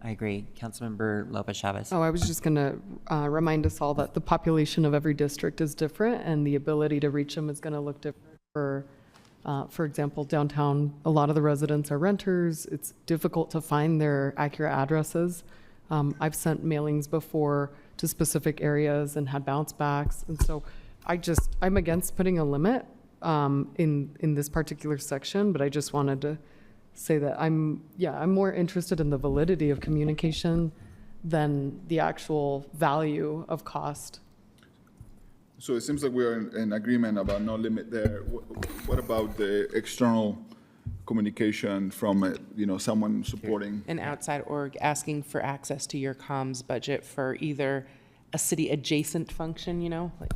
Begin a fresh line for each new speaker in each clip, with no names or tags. I agree. Councilmember Lopez Chavez.
Oh, I was just going to remind us all that the population of every district is different, and the ability to reach them is going to look different. For, uh, for example, downtown, a lot of the residents are renters. It's difficult to find their accurate addresses. Um, I've sent mailings before to specific areas and had bounce backs, and so I just, I'm against putting a limit um, in, in this particular section, but I just wanted to say that I'm, yeah, I'm more interested in the validity of communication than the actual value of cost.
So it seems like we are in, in agreement about no limit there. Wh- What about the external communication from, uh, you know, someone supporting?
an outside org asking for access to your comms budget for either a city adjacent function, you know? like-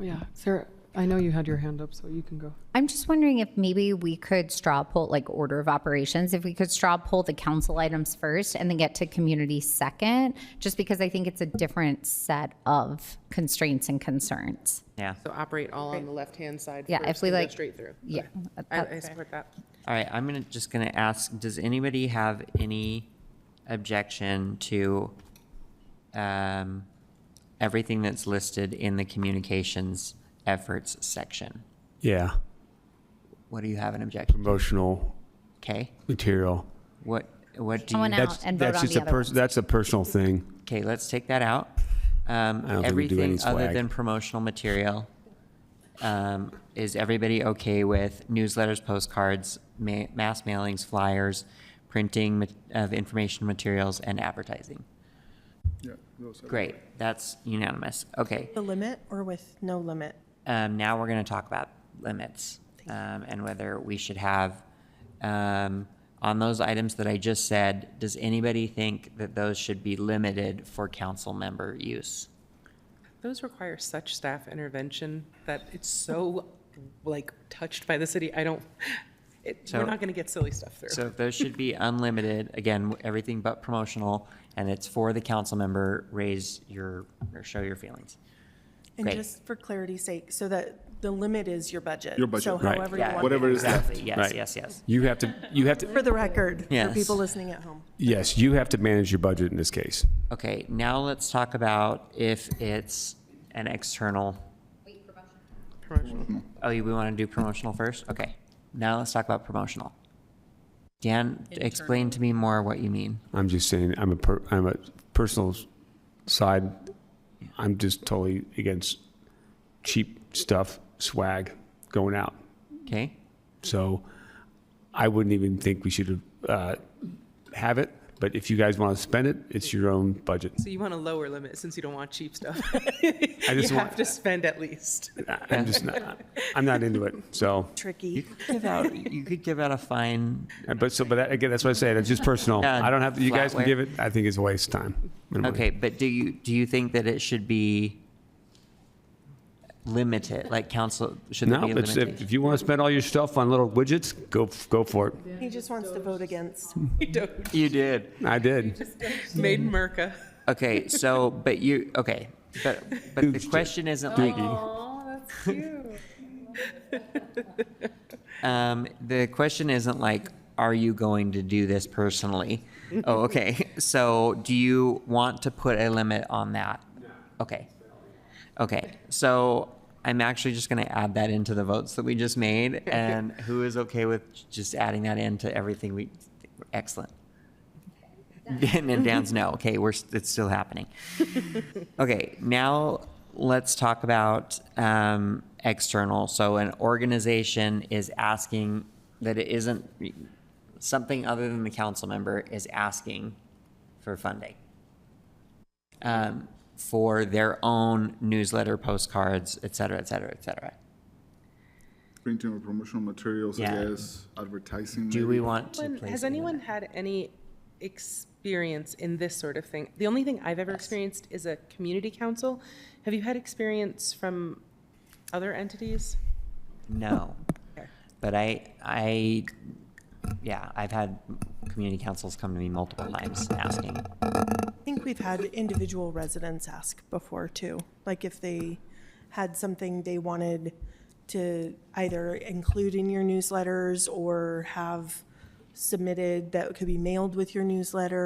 Yeah, Sarah, I know you had your hand up, so you can go.
I'm just wondering if maybe we could straw poll, like order of operations, if we could straw poll the council items first and then get to community second, just because I think it's a different set of constraints and concerns.
Yeah.
So operate all on the left-hand side
Yeah,
first
if we
and go
like-
straight through.
Yeah.
Okay.
that-
I, I
that's-
support that.
All right, I'm gonna, just gonna ask, does anybody have any objection to, um, everything that's listed in the communications efforts section?
Yeah,
What do you have an objection?
promotional
Okay,
material.
what, what do
Someone
you,
else.
That's
and vote
that's
on
just
the
a
other
pers-
ones.
That's a personal thing.
okay, let's take that out. Um,
I don't think we do any
everything other
swag.
than promotional material. Um, is everybody okay with newsletters, postcards, ma- mass mailings, flyers, printing ma- of information materials and advertising?
Yeah, those are-
Great, that's unanimous. Okay,
The limit or with no limit?
um, now we're going to talk about limits um, and whether we should have, um, on those items that I just said, does anybody think that those should be limited for council member use?
Those require such staff intervention that it's so, like, touched by the city, I don't, it,
So-
we're not gonna get silly stuff
So
through.
if those should be unlimited, again, everything but promotional, and it's for the council member, raise your, or show your feelings.
And
Great.
just for clarity's sake, so that the limit is your budget.
Your budget,
So
right.
however you
Yeah,
want. it.
Whatever is left.
Exactly, yes,
Right.
yes, yes.
You have to. You have to.
For the record, for
Yes.
people listening at home.
Yes, you have to manage your budget in this case.
Okay, now let's talk about if it's an external Oh, you, we want to do promotional first? Okay. Now let's talk about promotional. Dan, explain to me more what you mean.
I'm just saying. I'm a. Per, I'm a personal s- side. I'm just totally against cheap stuff, swag going out.
Okay?
So I wouldn't even think we should uh, have it. But if you guys want to spend it, it's your own budget.
So you want a lower limit since you don't want cheap stuff.
I
You
just want-
have to spend at least.
I'm just not. I'm not into it. So.
You
Tricky.
could give out, you could give out a fine.
Uh, But so, but that, again, that's what I say. That's just personal.
Yeah,
I don't have. You guys
flatware.
can give it. I think it's a waste of time. and money.
Okay, but do you, do you think that it should be limited, like council, should it
No,
be
it's, if,
limited?
if you want to spend all your stuff on little widgets, go f- go for it.
He just wants to vote against.
We don't,
You did.
I did.
made in Merca.
Okay, so, but you, okay, but, but the question isn't like. Um, the question isn't like, are you going to do this personally? Oh, okay, so do you want to put a limit on that? Okay. Okay, so I'm actually just gonna add that into the votes that we just made, and who is okay with just adding that into everything we, excellent. And
Mm-hmm.
then Dan's no. Okay, we're s- it's still happening. Okay, now let's talk about um, external. So an organization is asking that it isn't something other than the council member is asking for funding um, for their own newsletter, postcards, et cetera, et cetera, et cetera.
Printing or promotional materials, I
Yeah.
guess, advertising.
Do we
maybe.
want to place?
Has
a limit?
anyone had any experience in this sort of thing? The only thing I've ever experienced is a community council. Have you had experience from other entities?
No. But I, I, yeah, I've had community councils come to me multiple times asking.
I think we've had individual residents ask before too, like if they had something they wanted to either include in your newsletters or have submitted that could be mailed with your newsletter